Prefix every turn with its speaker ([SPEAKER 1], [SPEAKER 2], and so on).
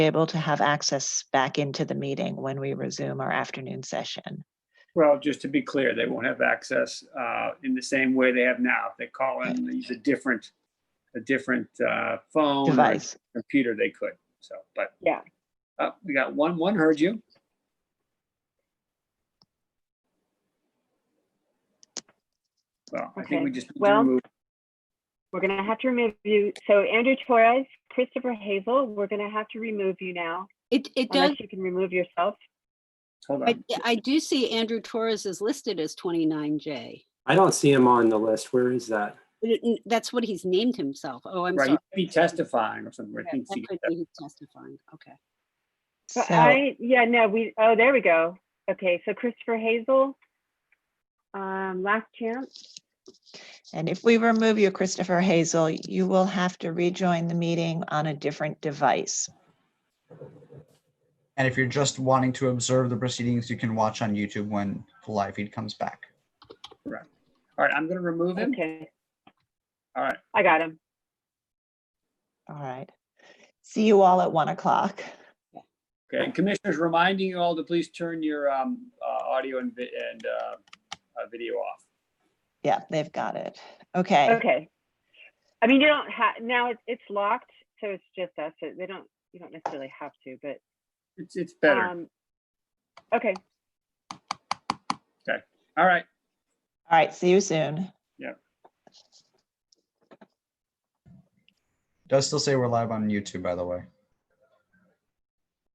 [SPEAKER 1] able to have access back into the meeting when we resume our afternoon session.
[SPEAKER 2] Well, just to be clear, they won't have access uh, in the same way they have now. If they call in, they use a different, a different uh, phone. or
[SPEAKER 1] Device.
[SPEAKER 2] Computer, they could, so, but.
[SPEAKER 3] Yeah.
[SPEAKER 2] Uh, We got one, one heard you. Well, I think
[SPEAKER 3] Okay,
[SPEAKER 2] we just. need to
[SPEAKER 3] well-
[SPEAKER 2] remove-
[SPEAKER 3] We're gonna have to remove you. So Andrew Torres, Christopher Hazel, we're gonna have to remove you now.
[SPEAKER 4] It, it does,
[SPEAKER 3] Unless you can remove yourself.
[SPEAKER 2] Hold
[SPEAKER 4] I,
[SPEAKER 2] on,
[SPEAKER 4] I do see Andrew Torres is listed as 29J.
[SPEAKER 5] I don't see him on the list. Where is that?
[SPEAKER 4] But it- That's what he's named himself. Oh, I'm
[SPEAKER 2] right,
[SPEAKER 4] sorry.
[SPEAKER 2] you could be testifying or something. I
[SPEAKER 4] Yeah,
[SPEAKER 2] think
[SPEAKER 4] That
[SPEAKER 2] she-
[SPEAKER 4] could be his testifying. Okay.
[SPEAKER 3] But
[SPEAKER 1] So,
[SPEAKER 3] I, yeah, no, we, oh, there we go. Okay, so Christopher Hazel. Um, last chance.
[SPEAKER 1] and if we remove you, Christopher Hazel, you will have to rejoin the meeting on a different device.
[SPEAKER 6] And if you're just wanting to observe the proceedings, you can watch on YouTube when the live feed comes back.
[SPEAKER 2] All right, I'm going to remove him.
[SPEAKER 3] Okay.
[SPEAKER 2] All right.
[SPEAKER 3] I got him.
[SPEAKER 1] All right. See you all at one o'clock.
[SPEAKER 2] Okay, and commissioners, reminding you all to please turn your um, uh, audio and vi- and uh, uh, video off.
[SPEAKER 1] Yeah, they've got it. Okay,
[SPEAKER 3] Okay. I mean, you don't have, now it's, it's locked, so it's just us. so They don't, you don't necessarily have to, but,
[SPEAKER 2] It's, it's better.
[SPEAKER 3] um, okay,
[SPEAKER 2] All right.
[SPEAKER 1] all right, see you soon.
[SPEAKER 6] Does still say we're live on YouTube, by the way.